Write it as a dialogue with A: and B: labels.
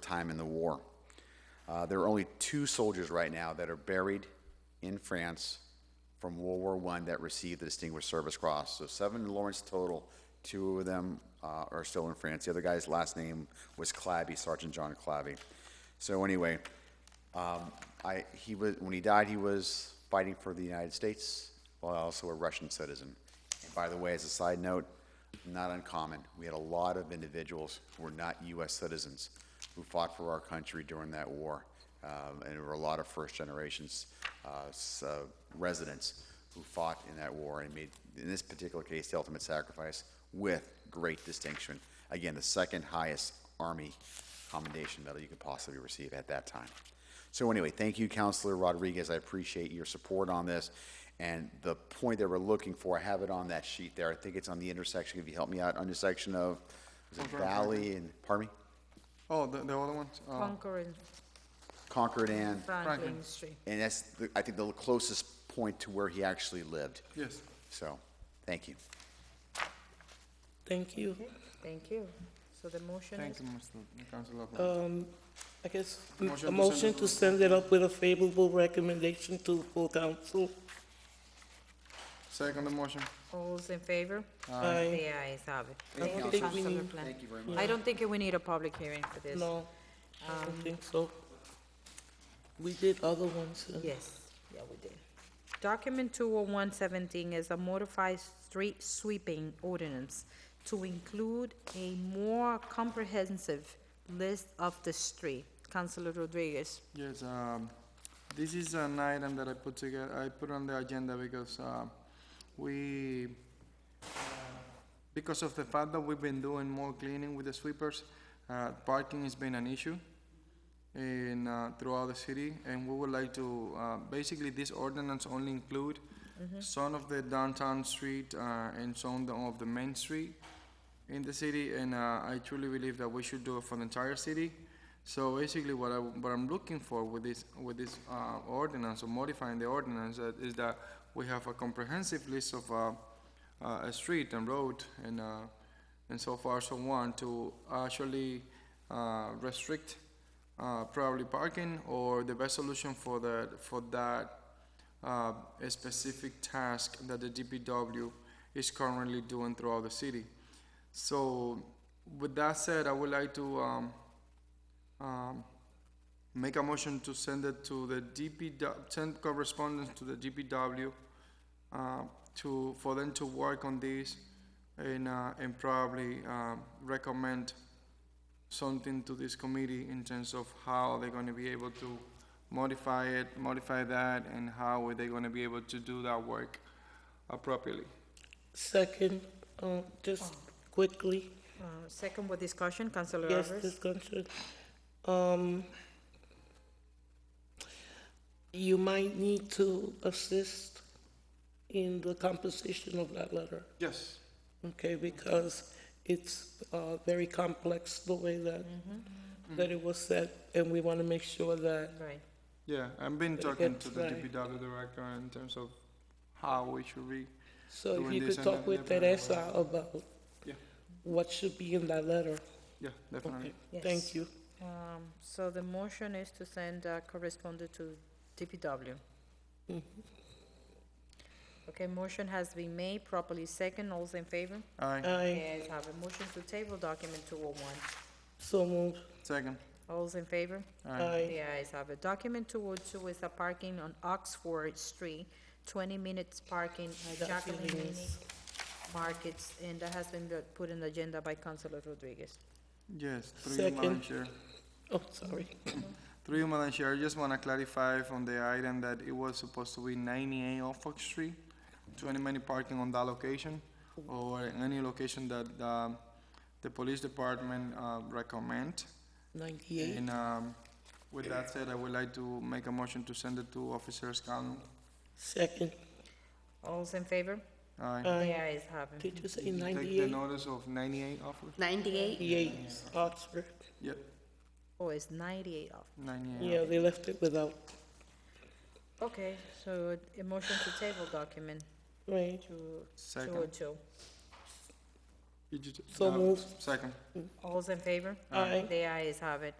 A: time in the war. Uh, there are only two soldiers right now that are buried in France from World War I that received the Distinguished Service Cross. So seven in Lawrence total. Two of them uh, are still in France. The other guy's last name was Clabby, Sergeant John Clabby. So anyway, um, I, he was, when he died, he was fighting for the United States, while also a Russian citizen. And by the way, as a side note, not uncommon. We had a lot of individuals who were not U.S. citizens who fought for our country during that war. Um, and there were a lot of first generations uh, s- uh, residents who fought in that war and made, in this particular case, the ultimate sacrifice with great distinction. Again, the second highest Army commendation medal you could possibly receive at that time. So anyway, thank you, Counselor Rodriguez. I appreciate your support on this. And the point that we're looking for, I have it on that sheet there. I think it's on the intersection, if you help me out, intersection of is it Valley and, pardon me?
B: Oh, the, the other ones? Uh,
C: Concord and
A: Concord and,
C: Franklin Street.
A: and that's, the- I think, the closest point to where he actually lived.
B: Yes.
A: So, thank you.
D: Thank you.
C: Thank you. So the motion is,
B: Thank you, Mr. Councilor.
D: Um, I guess,
B: Motion to
D: a
B: send
D: motion
B: it
D: to send it up with a favorable recommendation to the full council.
B: Second the motion.
C: all's in favor?
D: Aye.
C: The ayes have it.
D: I
C: Thank you,
D: don't think we
C: Councilor
D: need-
C: Plant.
A: Thank you very
C: I don't think we need a public hearing for this.
D: No, I don't think so. We did other ones. uh,
C: Yes, yeah, we did. Document two oh one seventeen is a modified street sweeping ordinance to include a more comprehensive list of the street. Councilor Rodriguez,
B: Yes, um, this is an item that I put together, I put on the agenda because, uh, we, uh, because of the fact that we've been doing more cleaning with the sweepers, uh, parking has been an issue in, uh, throughout the city, and we would like to, uh, basically, this ordinance only include some of the downtown street, uh, and some of the main street in the city, and, uh, I truly believe that we should do it for the entire city. So basically, what I, what I'm looking for with this, with this, uh, ordinance, or modifying the ordinance, uh, is that we have a comprehensive list of, uh, uh, a street and road and, uh, and so far so on to actually uh, restrict uh, probably parking or the best solution for the for that uh, a specific task that the DPW is currently doing throughout the city. So, with that said, I would like to um, um, make a motion to send it to the DPW, send correspondence to the DPW uh, to, for them to work on this and, uh, and probably um, recommend something to this committee in terms of how they're gonna be able to modify it, modify that, and how are they gonna be able to do that work appropriately.
D: Second, uh, just quickly,
C: uh, second with discussion, Councilor
D: yes,
C: Alvarez.
D: discussion. Um, you might need to assist in the composition of that letter.
B: Yes.
D: Okay, because it's uh, very complex the way that,
B: Mm-hmm.
D: that it was said, and we want to make sure that,
C: Right.
B: Yeah, I've been talking
D: It's
B: to the
D: right.
B: DPW director in terms of how we should read.
D: so if
B: Doing
D: you
B: this
D: could
B: and
D: talk
B: that,
D: with
B: yeah,
D: Teresa about
B: Yeah,
D: what should be in that letter.
B: yeah,
D: Okay,
B: definitely.
C: Yes.
D: thank you.
C: Um, so the motion is to send uh, correspondent to DPW. Okay, motion has been made, properly second, all's in favor?
B: Aye,
D: I
C: Yes, have a motion to table document two oh one.
D: so moved.
B: second.
C: All's in favor?
D: Aye.
C: The ayes have it. Document two oh two is a parking on Oxford Street, twenty minutes parking at
D: got
C: Jacqueline Mini
D: feelings.
C: Markets, and that has been uh, put in the agenda by Councilor Rodriguez.
B: Yes, through you, Madam
D: Second.
B: Chair.
D: Oh, sorry.
B: Through you, Madam Chair, I just want to clarify on the item that it was supposed to be 98 Norfolk Street, 20 minute parking on that location, or in any location that um, the police department uh, recommend.
D: Ninety-eight,
B: And um, with that said, I would like to make a motion to send it to Officer Scanlon.
D: second.
C: All's in favor?
B: Aye.
D: Aye.
C: The ayes have it.
D: Did you say
B: uh, Take the
D: Uh, ninety-eight?
B: notice of 98 Norfolk?
E: Ninety-eight,
D: Ninety-eight, Oxford.
B: Yep,
C: Oh, it's ninety-eight off.
B: 98.
D: Yeah, they left it without,
C: Okay, so a motion to table document
D: right?
C: to two oh
B: Second.
C: two.
B: You ju-
D: So
B: uh,
D: moved.
B: Second.
C: All's in favor?
D: Aye.
C: The ayes have it.